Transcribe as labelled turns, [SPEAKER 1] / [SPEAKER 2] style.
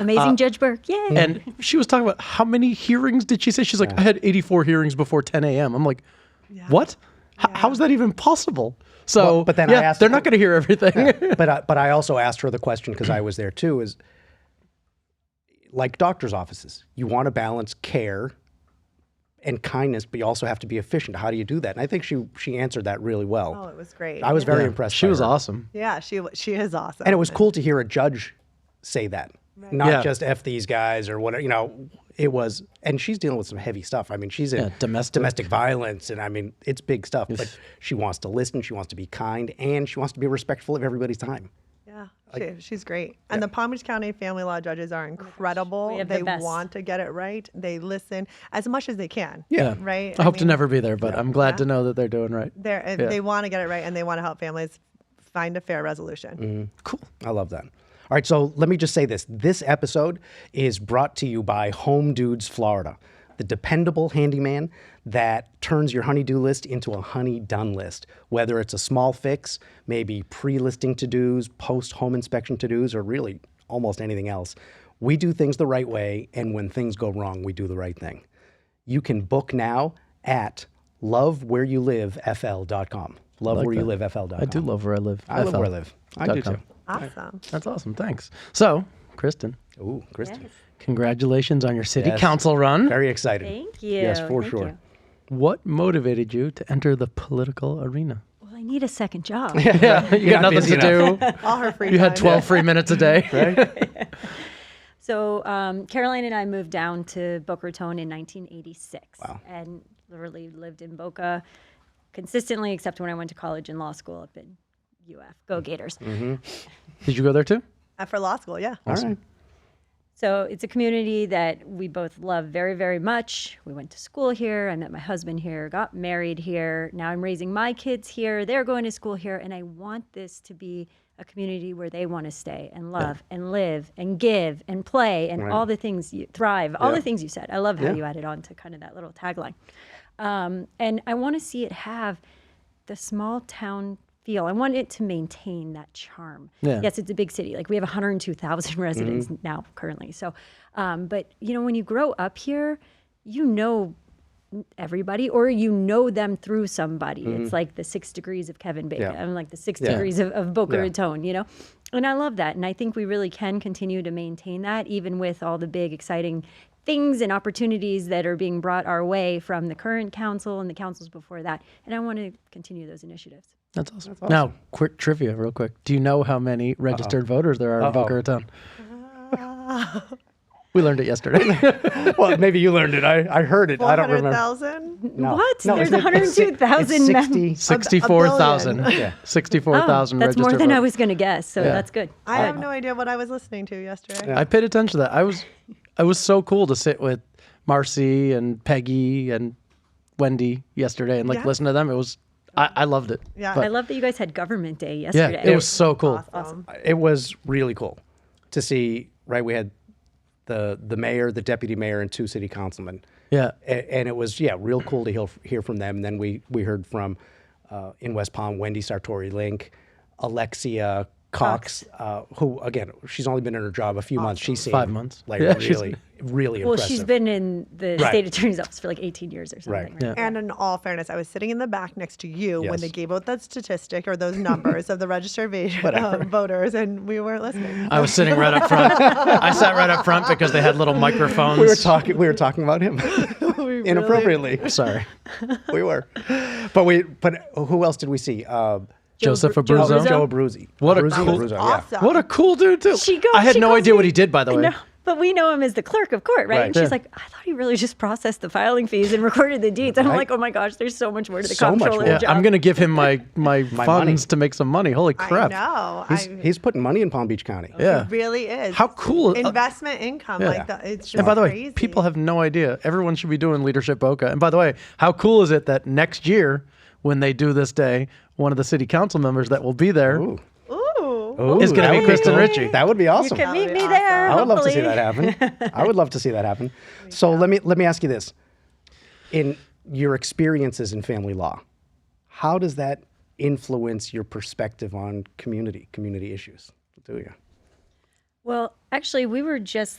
[SPEAKER 1] Amazing
[SPEAKER 2] Uh,
[SPEAKER 1] Judge Burke. Yay.
[SPEAKER 3] And she was talking about how many hearings did she say? She's like, I had 84 hearings before 10 a.m. I'm like, what? H- how is that even possible? So,
[SPEAKER 2] Well,
[SPEAKER 3] but then I asked they're not going to hear everything.
[SPEAKER 2] but I, but I also asked her the question because I was there too. Is like doctors' offices, you want to balance care and kindness, but you also have to be efficient. How do you do that? And I think she she answered that really well.
[SPEAKER 4] Oh, it was great.
[SPEAKER 2] I was very impressed.
[SPEAKER 3] she
[SPEAKER 2] by
[SPEAKER 3] was
[SPEAKER 2] her.
[SPEAKER 3] awesome.
[SPEAKER 4] yeah, she she is awesome.
[SPEAKER 2] and it was cool to hear a judge say that, not
[SPEAKER 3] Yeah.
[SPEAKER 2] just f these guys or whatever. You know, it was, and she's dealing with some heavy stuff. I mean, she's in
[SPEAKER 3] Yeah, domestic.
[SPEAKER 2] domestic violence, and I mean, it's big stuff. But she wants to listen, she wants to be kind, and she wants to be respectful of everybody's time.
[SPEAKER 4] Yeah, she, she's great. And the Palm Beach County family law judges are incredible.
[SPEAKER 1] have the
[SPEAKER 4] they
[SPEAKER 1] best.
[SPEAKER 4] want to get it right. They listen as much as they can.
[SPEAKER 3] Yeah.
[SPEAKER 4] Right?
[SPEAKER 3] I,
[SPEAKER 4] I
[SPEAKER 3] hope to
[SPEAKER 4] mean,
[SPEAKER 3] never be there, but I'm glad to know that they're doing right.
[SPEAKER 4] They're, and They want to get it right and they want to help families find a fair resolution.
[SPEAKER 2] Cool. I love that. All right, so let me just say this. This episode is brought to you by Home Dudes Florida, the dependable handyman that turns your honey-do list into a honey-done list. Whether it's a small fix, maybe pre-listing to-dos, post-home inspection to-dos, or really almost anything else, we do things the right way, and when things go wrong, we do the right thing. You can book now at lovewhereyoulivefl.com. Lovewhereyoulivefl.com.
[SPEAKER 3] I do love where I live.
[SPEAKER 2] I love where I live. I do
[SPEAKER 3] .com.
[SPEAKER 2] too.
[SPEAKER 4] Awesome.
[SPEAKER 3] That's awesome. Thanks. So, Kristen,
[SPEAKER 2] Ooh, Kristen.
[SPEAKER 3] congratulations on your city
[SPEAKER 2] Yes.
[SPEAKER 3] council run.
[SPEAKER 2] Very excited.
[SPEAKER 1] Thank you.
[SPEAKER 2] Yes, for
[SPEAKER 1] Thank
[SPEAKER 2] sure.
[SPEAKER 1] you.
[SPEAKER 3] What motivated you to enter the political arena?
[SPEAKER 1] Well, I need a second job.
[SPEAKER 3] Yeah, you got nothing
[SPEAKER 2] busy
[SPEAKER 3] to do.
[SPEAKER 4] All her free
[SPEAKER 3] You had
[SPEAKER 4] time.
[SPEAKER 3] 12 free minutes a day.
[SPEAKER 1] So um, Caroline and I moved down to Boca Raton in 1986, and literally lived in Boca consistently, except when I went to college and law school up in UF.
[SPEAKER 2] Mm.
[SPEAKER 1] Go Gators!
[SPEAKER 3] Did you go there too?
[SPEAKER 4] Uh, For law school, yeah.
[SPEAKER 2] All right.
[SPEAKER 1] So it's a community that we both love very, very much. We went to school here. I met my husband here, got married here. Now I'm raising my kids here. They're going to school here. And I want this to be a community where they want to stay and love and live and give and play and all the things you thrive, all the things you said. I love how you added on to kind of that little tagline. Um, and I want to see it have the small town feel. I want it to maintain that charm.
[SPEAKER 3] Yeah.
[SPEAKER 1] Yes, it's a big city. Like we have 102,000 residents now currently. So, um, but you know, when you grow up here, you know everybody or you know them through somebody. It's like the six degrees of Kevin Bacon.
[SPEAKER 2] Yeah.
[SPEAKER 1] I'm like the six degrees of, of Boca Raton, you know? And I love that. And I think we really can continue to maintain that even with all the big, exciting things and opportunities that are being brought our way from the current council and the councils before that. And I want to continue those initiatives.
[SPEAKER 3] That's awesome. Now, quick trivia, real quick. Do you know how many registered voters there are in Boca Raton? we learned it yesterday.
[SPEAKER 2] well, maybe you learned it. I, I heard it. I don't remember.
[SPEAKER 4] 400,000?
[SPEAKER 2] No.
[SPEAKER 1] What?
[SPEAKER 2] No,
[SPEAKER 1] There's
[SPEAKER 2] it's- it's si-
[SPEAKER 1] 102,000
[SPEAKER 2] it's
[SPEAKER 1] men.
[SPEAKER 2] 60
[SPEAKER 3] 64,000.
[SPEAKER 2] Yeah.
[SPEAKER 3] 64,000
[SPEAKER 1] Oh, That's
[SPEAKER 3] registered
[SPEAKER 1] more than I
[SPEAKER 3] voters.
[SPEAKER 1] was going to guess. So that's good.
[SPEAKER 4] I have no idea what I was listening to yesterday.
[SPEAKER 3] I paid attention to that. I was I was so cool to sit with Marcy and Peggy and Wendy yesterday and like
[SPEAKER 4] Yeah.
[SPEAKER 3] listen to them. It was I, I loved it.
[SPEAKER 4] Yeah.
[SPEAKER 1] I love that you guys had government day
[SPEAKER 3] Yeah,
[SPEAKER 1] yesterday.
[SPEAKER 3] it was so cool.
[SPEAKER 4] Awesome.
[SPEAKER 2] Uh, It was really cool to see, right? We had the the mayor, the deputy mayor, and two city councilmen.
[SPEAKER 3] Yeah.
[SPEAKER 2] A- and it was, yeah, real cool to hear, hear from them. And then we, we heard from, uh, in West Palm, Wendy Sartori Link, Alexia Cox, Uh, who, again, she's only been in her job a few months. She's seen
[SPEAKER 3] Five months.
[SPEAKER 2] Like,
[SPEAKER 3] Yeah, she's-
[SPEAKER 2] really, really
[SPEAKER 1] Well,
[SPEAKER 2] impressive.
[SPEAKER 1] she's been in the
[SPEAKER 2] Right.
[SPEAKER 1] state attorney's office for like 18 years or something.
[SPEAKER 2] Right.
[SPEAKER 1] Right.
[SPEAKER 4] And in all fairness, I was sitting in the back next to you when they
[SPEAKER 2] Yes.
[SPEAKER 4] gave out that statistic or those numbers of the registered va- um, voters, and we weren't listening.
[SPEAKER 3] I was sitting right up front. I sat right up front because they had little microphones.
[SPEAKER 2] we were talking. We were talking about him inappropriately.
[SPEAKER 3] Sorry.
[SPEAKER 2] we were, but we. But who else did we see? Um,
[SPEAKER 3] Joseph
[SPEAKER 1] Bru- Joe
[SPEAKER 3] Abruzzo.
[SPEAKER 1] Abruzzo?
[SPEAKER 2] Joe Abruzzi.
[SPEAKER 3] What a
[SPEAKER 2] Abruzzi,
[SPEAKER 3] cool-
[SPEAKER 2] Abruzzo, yeah.
[SPEAKER 4] Awesome.
[SPEAKER 3] What a cool dude too.
[SPEAKER 1] She goes,
[SPEAKER 3] I had
[SPEAKER 1] she
[SPEAKER 3] no
[SPEAKER 1] calls
[SPEAKER 3] idea
[SPEAKER 1] me-
[SPEAKER 3] what he did by the way.
[SPEAKER 1] No, but we know him as the clerk of court, right?
[SPEAKER 2] Right.
[SPEAKER 1] And she's
[SPEAKER 2] Yeah.
[SPEAKER 1] like, I thought he really just processed the filing fees and recorded the deeds. And I'm
[SPEAKER 2] Right.
[SPEAKER 1] like, oh my gosh, there's so much more to the
[SPEAKER 2] So much
[SPEAKER 1] comptroller
[SPEAKER 2] more.
[SPEAKER 3] Yeah,
[SPEAKER 1] job.
[SPEAKER 3] I'm gonna give him my my, funds
[SPEAKER 2] money.
[SPEAKER 3] to make some money. Holy crap!
[SPEAKER 4] I know.
[SPEAKER 2] He's,
[SPEAKER 4] I,
[SPEAKER 2] he's putting money in Palm Beach County.
[SPEAKER 3] Yeah.
[SPEAKER 4] It really is.
[SPEAKER 3] How cool- uh,
[SPEAKER 4] Investment income.
[SPEAKER 3] Yeah.
[SPEAKER 4] Like the, it's just
[SPEAKER 3] and by the way,
[SPEAKER 4] crazy.
[SPEAKER 3] people have no idea. Everyone should be doing leadership Boca. And by the way, how cool is it that next year, when they do this day, one of the city council members that will be there
[SPEAKER 2] Ooh.
[SPEAKER 4] Ooh.
[SPEAKER 2] Ooh,
[SPEAKER 3] It's gonna
[SPEAKER 2] that
[SPEAKER 3] be
[SPEAKER 2] would
[SPEAKER 3] Kristen
[SPEAKER 2] cool.
[SPEAKER 3] Ritchie.
[SPEAKER 2] That would be awesome.
[SPEAKER 1] Can meet
[SPEAKER 4] be
[SPEAKER 1] me
[SPEAKER 4] awesome.
[SPEAKER 1] there.
[SPEAKER 2] I would love to see
[SPEAKER 1] hopefully.
[SPEAKER 2] that happen. I would love to see that happen. So let me let me ask you this: in your experiences in family law, how does that influence your perspective on community community issues? Do you?
[SPEAKER 1] Well, Actually, we were just